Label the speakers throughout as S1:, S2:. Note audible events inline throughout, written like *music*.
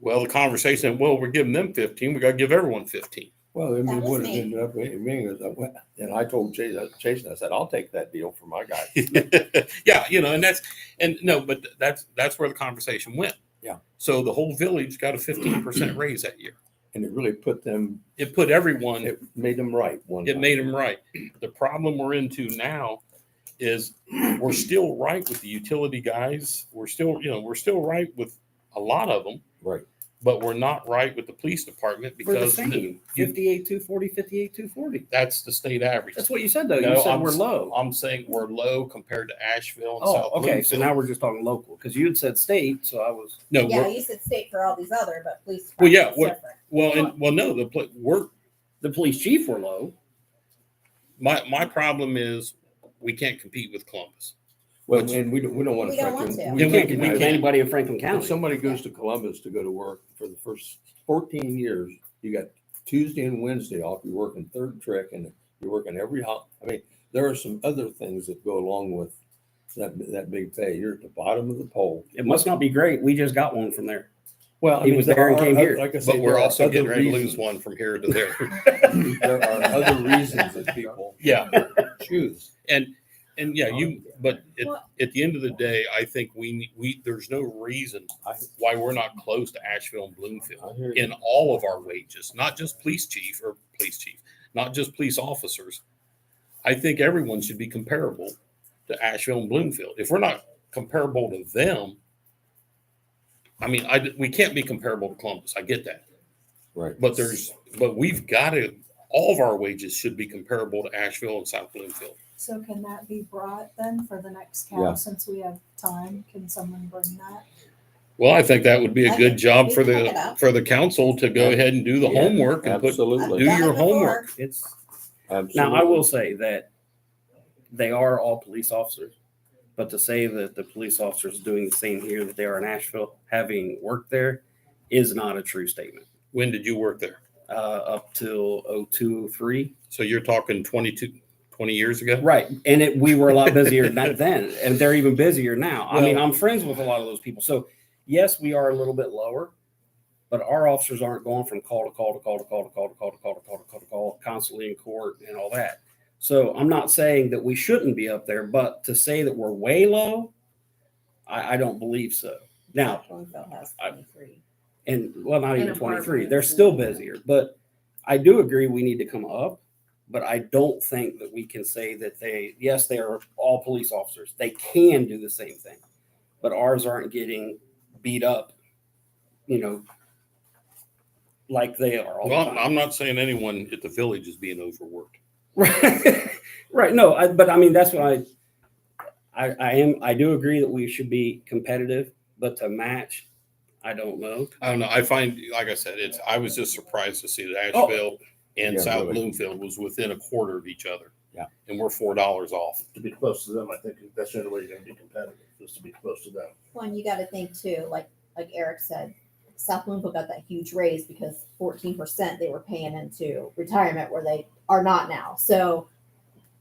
S1: Well, the conversation, well, we're giving them fifteen, we gotta give everyone fifteen. *laughs*
S2: Well, I mean,
S3: was
S2: what it
S3: me.
S2: ended up being is, that went- and I told Jason, Jason, I said, I'll take that deal for my guy.
S1: Yeah, you know, and that's, and no, but that's, that's where the conversation went.
S2: Yeah.
S1: So the whole village got a fifteen
S4: *clears throat*
S1: percent raise that year.
S2: And it really put them,
S1: It put everyone
S2: it made them right one
S1: it
S2: time.
S1: made them right. The problem we're into now is we're still right with the utility guys. We're still, you know, we're still right with a lot of them,
S2: Right.
S1: but we're not right with the police department
S4: We're the
S1: because
S4: same,
S1: you-
S4: fifty-eight, two forty, fifty-eight, two forty.
S1: that's the state average.
S4: That's what you said though. You
S1: No,
S4: said
S1: I'm
S4: we're
S1: s-
S4: low.
S1: I'm saying we're low compared to Asheville and South
S4: Oh, okay. So
S1: Louisville.
S4: now we're just talking local because you had said state, so I was.
S1: no,
S3: Yeah,
S1: we're,
S3: you said state for all these other, but police.
S1: Well, yeah,
S3: department's
S1: what-
S3: different.
S1: well, and, well, no, the pla- we're
S4: The police chief were low.
S1: my my problem is we can't compete with Columbus.
S2: Well, and we don't, we don't want
S3: We
S2: to.
S3: don't want to.
S1: Yeah,
S2: We
S1: we- we
S2: can't
S4: Can't get
S1: can't.
S4: with
S2: anybody.
S4: anybody in Franklin
S2: If
S4: County.
S2: somebody goes to Columbus to go to work for the first fourteen years, you got Tuesday and Wednesday off, you're working third trick and you're working every hol, I mean, there are some other things that go along with that, that big pay. You're at the bottom of the pole.
S4: It must not be great. We just got one from there.
S2: Well,
S4: I He mean, was there and there are came oth- here.
S2: Like I said,
S1: But we're also getting ready to lose one from here to there.
S4: *laughs*
S2: There are other reasons that people
S1: yeah.
S2: choose.
S1: And, and yeah, you, but at,
S3: Well-
S1: at the end of the day, I think we, ne- we, there's no reason
S2: I-
S1: why we're not close to Asheville and
S2: I
S1: Bloomfield
S2: hear you.
S1: in all of our wages, not just police chief or police chief, not just police officers. I think everyone should be comparable to Asheville and Bloomfield. If we're not comparable to them, I mean, I, d- we can't be comparable to Columbus. I get that.
S2: Right.
S1: But there's, but we've got to, all of our wages should be comparable to Asheville and South Bloomfield.
S5: So can that be brought then for the next
S2: Yeah.
S5: cap, since we have time? Can someone bring that?
S1: Well, I think that would be a
S3: I
S1: good
S3: think
S1: job
S3: we
S1: for
S3: pick it
S1: the,
S3: up.
S1: for the council to go ahead and do the
S2: Yeah,
S1: homework and put,
S3: I've
S1: do
S2: Absolutely.
S3: done
S1: your
S3: it
S1: homework.
S3: before.
S4: It's now.
S2: Absolutely.
S4: I will say that they are all police officers, but to say that the police officers doing the same here that they are in Asheville, having worked there, is not a true statement.
S1: when did you work there?
S4: Uh, up till oh two oh three.
S1: So you're talking 22, 20 years ago?
S4: Right. And it, we were a lot busier back then, and they're even busier now. I mean,
S1: Well-
S4: I'm friends with a lot of those people. So, yes, we are a little bit lower, but our officers aren't going from call to call to call to call to call to call to call to call to call to call, constantly in court and all that. So, I'm not saying that we shouldn't be up there, but to say that we're way low, I, I don't believe so. Now,
S3: Bloomfield has
S4: I-
S3: 23.
S4: and well, not
S3: And
S4: even
S3: a
S4: twenty three.
S3: partner.
S4: They're still busier, but I do agree we need to come up. But I don't think that we can say that they. Yes, they are all police officers. They can do the same thing, but ours aren't getting beat up. You know, like they are all
S1: Well,
S4: the
S1: I'm-
S4: time.
S1: I'm not saying anyone at the village is being overworked.
S4: Right, *laughs* right. No, I, but I mean that's why I, I, I am. I do agree that we should be competitive, but to match, I don't know.
S1: I don't know. I find, like I said, it's, I was just surprised to see that
S4: Oh.
S1: Asheville and
S2: Yeah,
S1: South
S2: really.
S1: Bloomfield was within a quarter of each other.
S2: Yeah.
S1: And we're $4 off.
S6: to be close to them, I think that's the only way you're gonna be competitive, is to be close to them.
S3: Well, and you got to think too, like like Eric said, South Bloomfield got that huge raise because fourteen percent they were paying into retirement where they are not now. So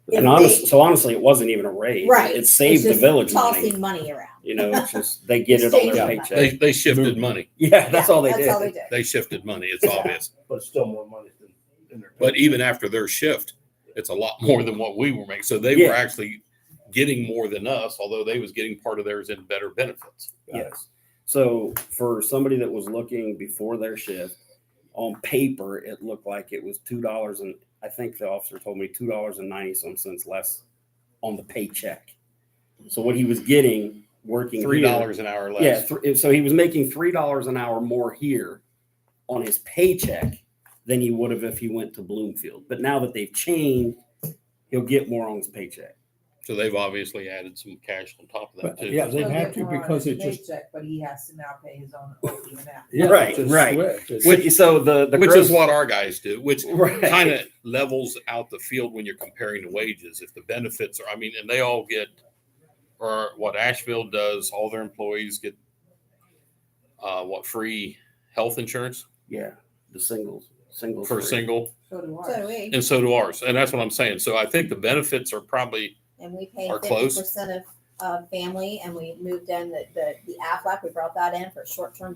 S3: if
S4: And honest, so honestly, it wasn't even a raise.
S3: Right.
S4: It
S3: they-
S4: saved
S3: it's
S4: the
S3: just
S4: village money.
S3: tossing money, around.
S4: You
S3: *laughs*
S4: know, it's just they get it on their
S3: Saving
S4: paycheck.
S1: They, they shifted money.
S4: Yeah, that's
S3: Yeah,
S4: all they
S3: that's
S4: did.
S3: all they did.
S1: They shifted money.
S4: *laughs*
S1: It's obvious.
S6: But it's still more money than in their.
S1: But even after their shift, it's a lot more than what we were making. So they
S4: Yeah.
S1: were actually getting more than us, although they was getting part of theirs in better benefits.
S4: Yes. So for somebody that was looking before their shift, on paper, it looked like it was two dollars and I think the officer told me two dollars and ninety some cents less on the paycheck. So what he was getting working
S1: Three
S4: here-
S1: dollars an hour less.
S4: Yeah, thr- so he was making three dollars an hour more here on his paycheck than he would have if he went to Bloomfield. But now that they've changed, he'll get more on his paycheck.
S1: So they've obviously added some cash on top of that
S2: But,
S1: too.
S2: Yeah, they'd
S7: He'll
S2: have
S7: get
S2: to
S7: more on
S2: because
S7: his
S2: it just.
S7: paycheck, But he has to now pay his own OE now.
S2: yeah, it's
S4: Right,
S2: a
S4: right.
S2: switch. It's-
S4: Which, so the the
S1: which
S4: gross-
S1: is what our guys do, which
S4: *laughs* right.
S1: kind of levels out the field when you're comparing the wages. If the benefits are, I mean, and they all get, or what Asheville does, all their employees get, uh, what free health insurance
S4: Yeah, the singles, singles
S1: per
S4: Oh, free.
S1: single,
S7: So do
S3: So do
S7: ours.
S3: we,
S1: and so do ours. And that's what I'm saying. So I think the benefits are probably
S3: and we pay
S1: Are
S3: fifty
S1: close.
S3: percent of uh, family, and we moved in the, the the AFLAC. We brought that in for short term